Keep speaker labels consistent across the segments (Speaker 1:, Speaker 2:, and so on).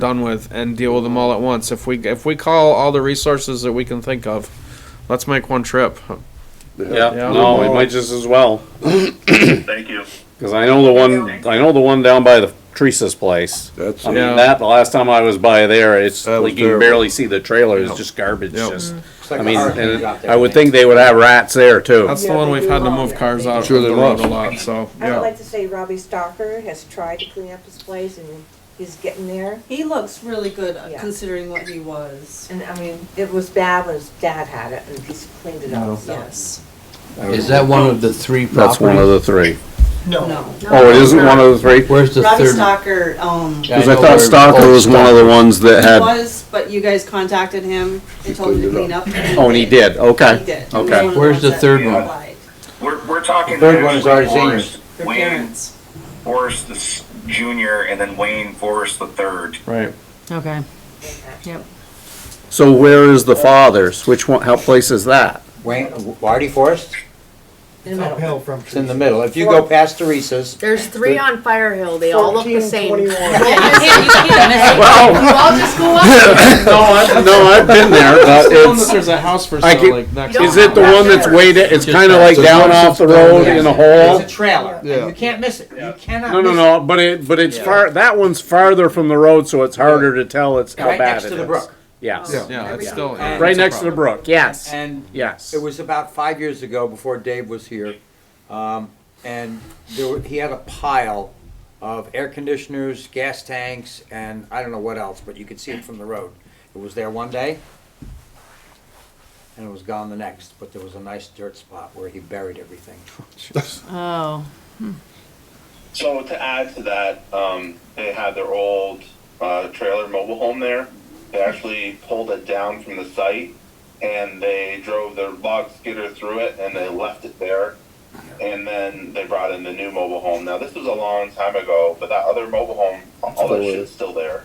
Speaker 1: done with and deal with them all at once. If we if we call all the resources that we can think of, let's make one trip.
Speaker 2: Yeah,
Speaker 1: Yeah.
Speaker 2: no, we might just as well,
Speaker 3: Thank you.
Speaker 2: because I know the one, I know the one down by the Teresa's place.
Speaker 4: That's,
Speaker 2: I
Speaker 4: it.
Speaker 1: Yeah.
Speaker 2: mean, that, the last time I was by there, it's
Speaker 4: That was
Speaker 2: like you can
Speaker 4: terrible.
Speaker 2: barely see the trailer, it's just garbage,
Speaker 1: Yep.
Speaker 2: just,
Speaker 5: like
Speaker 2: I
Speaker 5: a
Speaker 2: mean,
Speaker 5: hurricane
Speaker 2: and
Speaker 5: dropped
Speaker 2: I would
Speaker 5: everything.
Speaker 2: think they would have rats there too.
Speaker 1: That's the one we've had to move cars out
Speaker 4: Sure
Speaker 1: of the
Speaker 4: they
Speaker 1: road
Speaker 4: must.
Speaker 1: a lot. So
Speaker 6: I would like
Speaker 1: yeah,
Speaker 6: to say Robbie Stalker has tried to clean up his place and he's getting there.
Speaker 7: He looks really good uh,
Speaker 6: Yeah.
Speaker 7: considering what he was.
Speaker 6: And I mean, it was bad when his dad had it and he's cleaned it up, so.
Speaker 7: Yes.
Speaker 5: Is
Speaker 8: Is that one of the three
Speaker 2: That's one of
Speaker 8: properties?
Speaker 2: the three.
Speaker 7: No.
Speaker 2: Oh, it isn't one of the three?
Speaker 8: Where's the
Speaker 7: Robbie
Speaker 8: third?
Speaker 7: Stalker, um,
Speaker 8: Yeah,
Speaker 2: Because I
Speaker 8: know
Speaker 2: thought
Speaker 8: where
Speaker 2: Stalker
Speaker 8: Old
Speaker 2: was one of the ones that had,
Speaker 7: was, but you guys contacted him and told him to
Speaker 4: cleaned
Speaker 7: clean up.
Speaker 2: oh, and he did,
Speaker 7: He
Speaker 2: okay.
Speaker 7: did. He was
Speaker 2: Okay.
Speaker 7: one of
Speaker 8: Where's
Speaker 7: ones
Speaker 8: the
Speaker 7: that
Speaker 8: third one?
Speaker 7: applied.
Speaker 3: We're, we're talking.
Speaker 5: The third one is
Speaker 3: actually
Speaker 5: ours,
Speaker 3: Forrest,
Speaker 7: Their
Speaker 3: Wayne
Speaker 7: parents.
Speaker 3: Forrest the s- junior and then Wayne Forrest the third.
Speaker 5: Uh,
Speaker 1: right.
Speaker 9: Okay, yep.
Speaker 2: So where is the father's? Which one, how place is that?
Speaker 5: Wayne, Wardy Forest?
Speaker 6: In the middle.
Speaker 5: from. It's in the middle. If you go past Teresa's,
Speaker 9: There's three on Fire Hill, they all look the same. Yeah, you
Speaker 5: 1421.
Speaker 9: can't, you can't miss it.
Speaker 2: Well,
Speaker 9: You all just go up.
Speaker 2: no, I, no, I've been there, but
Speaker 1: That's the one that
Speaker 2: it's,
Speaker 1: there's a house for
Speaker 2: I
Speaker 1: sale
Speaker 2: get-
Speaker 1: like next.
Speaker 9: You
Speaker 1: to
Speaker 2: is it the one that's way, da- it's kinda like down off the road in a hole?
Speaker 5: there's a trailer. and
Speaker 4: Yeah.
Speaker 5: You can't miss it. You cannot
Speaker 2: No, no,
Speaker 5: miss it.
Speaker 2: no, but it, but it's far, that one's farther from the road, so it's harder to tell it's how
Speaker 5: Right
Speaker 2: bad
Speaker 5: next
Speaker 2: it
Speaker 5: to the
Speaker 2: is.
Speaker 5: brook.
Speaker 2: Yes,
Speaker 4: Yeah.
Speaker 1: Yeah, it's still yeah,
Speaker 2: right
Speaker 1: it's a
Speaker 2: next to the
Speaker 1: problem.
Speaker 2: brook, yes,
Speaker 5: And
Speaker 2: yes.
Speaker 5: it was about five years ago before Dave was here. Um, and there were, he had a pile of air conditioners, gas tanks, and I don't know what else, but you could see it from the road. It was there one day and it was gone the next, but there was a nice dirt spot where he buried everything.
Speaker 9: Oh,
Speaker 3: So to add to that, um, they had their old uh, trailer mobile home there. They actually pulled it down from the site and they drove their log skidder through it and they left it there. And then they brought in the new mobile home. Now this was a long time ago, but that other mobile home, all that shit's still there.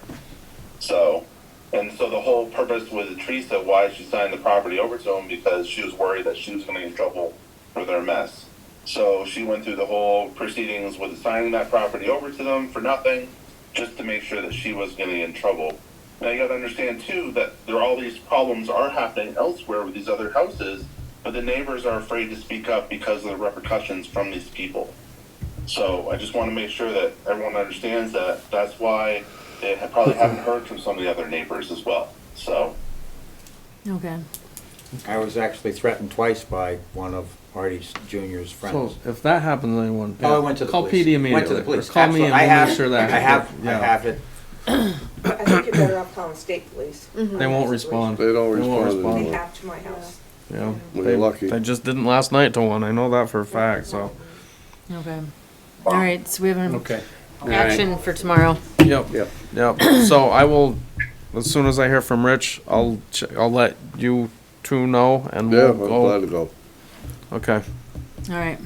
Speaker 3: So, and so the whole purpose with Teresa, why she signed the property over to him, because she was worried that she was going to get in trouble for their mess. So she went through the whole proceedings with signing that property over to them for nothing, just to make sure that she was getting in trouble. Now you got to understand too that there are all these problems are happening elsewhere with these other houses, but the neighbors are afraid to speak up because of the repercussions from these people. So I just want to make sure that everyone understands that. That's why they ha- probably haven't heard from some of the other neighbors as well. So.
Speaker 9: okay.
Speaker 5: I was actually threatened twice by one of Artie's Junior's
Speaker 1: So
Speaker 5: friends.
Speaker 1: if that happens, to anyone
Speaker 5: Oh, I went to the
Speaker 1: call
Speaker 5: police.
Speaker 1: PD immediately.
Speaker 5: Went to the
Speaker 1: or
Speaker 5: police.
Speaker 1: Call me
Speaker 5: Absolutely.
Speaker 1: and
Speaker 5: I
Speaker 1: we'll
Speaker 5: have,
Speaker 1: make sure that
Speaker 5: I have, I
Speaker 1: yeah.
Speaker 5: have it.
Speaker 6: I think you're better off calling state police.
Speaker 9: Mm-hmm.
Speaker 1: They won't respond.
Speaker 4: They don't
Speaker 1: They won't
Speaker 4: respond.
Speaker 6: They
Speaker 4: anymore.
Speaker 6: have to my house.
Speaker 1: Yeah.
Speaker 4: We're lucky.
Speaker 1: They just didn't last night to one. I know that for a fact. So
Speaker 9: Okay. All right, so we have an
Speaker 1: okay.
Speaker 9: action for tomorrow.
Speaker 1: Yep.
Speaker 4: Yep.
Speaker 1: Yep. So I will, as soon as I hear from Rich, I'll ch- I'll let you two know and
Speaker 4: Yeah,
Speaker 1: we'll
Speaker 4: I'm
Speaker 1: go.
Speaker 4: glad to go.
Speaker 1: Okay.
Speaker 9: All right.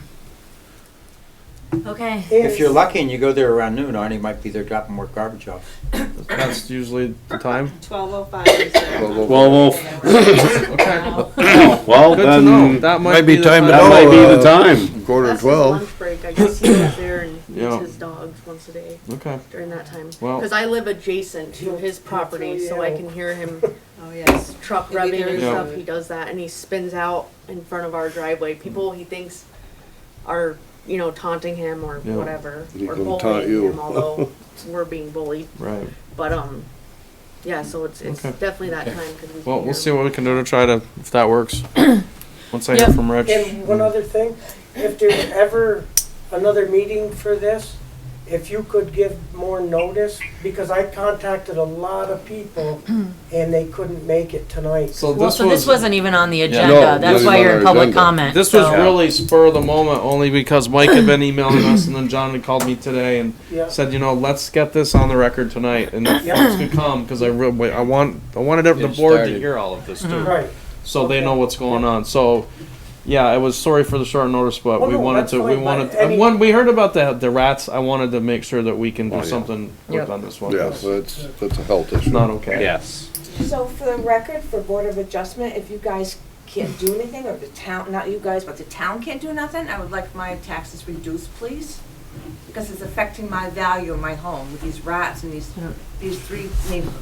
Speaker 9: Okay.
Speaker 5: If you're lucky and you go there around noon, Artie might be there dropping more garbage off.
Speaker 1: That's usually the time.
Speaker 7: Twelve oh five is their
Speaker 4: Well, well,
Speaker 2: Well,
Speaker 1: Okay.
Speaker 2: well, well,
Speaker 1: Good to know.
Speaker 2: then, that
Speaker 1: That might,
Speaker 4: Um, might be
Speaker 1: the
Speaker 4: time to know.
Speaker 2: might be the
Speaker 4: Uh,
Speaker 2: time.
Speaker 4: Quarter to
Speaker 9: That's his
Speaker 4: twelve,
Speaker 9: Lunch break, I guess he goes there and
Speaker 1: Yeah.
Speaker 9: feeds his dogs once a day
Speaker 1: Okay.
Speaker 9: during that time.
Speaker 1: Well-
Speaker 9: Cause I live adjacent to his property, so I can hear him
Speaker 7: Oh, yes.
Speaker 9: truck
Speaker 7: Maybe
Speaker 9: rubbing
Speaker 7: there
Speaker 9: and
Speaker 7: is
Speaker 9: stuff,
Speaker 7: a-
Speaker 9: he does that, and he spins out in front of our driveway, people he thinks are, you know, taunting him or
Speaker 1: Yeah.
Speaker 9: whatever,
Speaker 4: He
Speaker 9: or
Speaker 4: gonna taunt
Speaker 9: bullying
Speaker 4: you.
Speaker 9: him, although we're being bullied,
Speaker 1: Right.
Speaker 9: but, um, yeah, so it's, it's
Speaker 1: Okay.
Speaker 9: definitely that time, cause we.
Speaker 1: Well,
Speaker 9: can
Speaker 1: we'll see
Speaker 9: hear
Speaker 1: what we can do to try to if that works. Once I hear
Speaker 9: Yep.
Speaker 1: from Rich.
Speaker 10: And one other thing, if there's ever another meeting for this, if you could give more notice, because I contacted a lot of people
Speaker 9: Mm-hmm.
Speaker 10: and they couldn't make it tonight.
Speaker 1: So
Speaker 9: Well, so this wasn't even on the
Speaker 4: No,
Speaker 9: agenda, that's
Speaker 4: this
Speaker 9: why
Speaker 4: is
Speaker 9: you're
Speaker 4: on
Speaker 9: in
Speaker 4: our
Speaker 9: public
Speaker 4: agenda.
Speaker 9: comment.
Speaker 1: This was
Speaker 9: so-
Speaker 1: really spur of the moment only because Mike had been emailing us and then John had called me today and
Speaker 10: Yeah.
Speaker 1: said, you know, let's get this on the record tonight and if
Speaker 10: Yeah.
Speaker 1: folks could come because I really, I want, I wanted the
Speaker 8: Get it
Speaker 1: board to
Speaker 8: started.
Speaker 1: hear all of this too,
Speaker 10: Right.
Speaker 1: so they know what's going on. So, yeah, I was sorry for the short notice, but
Speaker 10: Well,
Speaker 1: we
Speaker 10: no,
Speaker 1: wanted
Speaker 10: that's
Speaker 1: to, we
Speaker 10: fine, but
Speaker 1: wanted,
Speaker 10: any-
Speaker 1: when we heard about the the rats, I wanted to make sure that we can
Speaker 8: Oh,
Speaker 1: do
Speaker 4: Well, yeah.
Speaker 1: something
Speaker 9: Yep.
Speaker 1: with on this one.
Speaker 4: yes, that's, that's a health issue.
Speaker 1: It's not okay.
Speaker 2: Yes.
Speaker 6: So for the record, for Board of Adjustment, if you guys can't do anything, or the town, not you guys, but the town can't do nothing, I would like my taxes reduced, please.
Speaker 9: because it's affecting my value of my home with these rats and these, these three neighbors.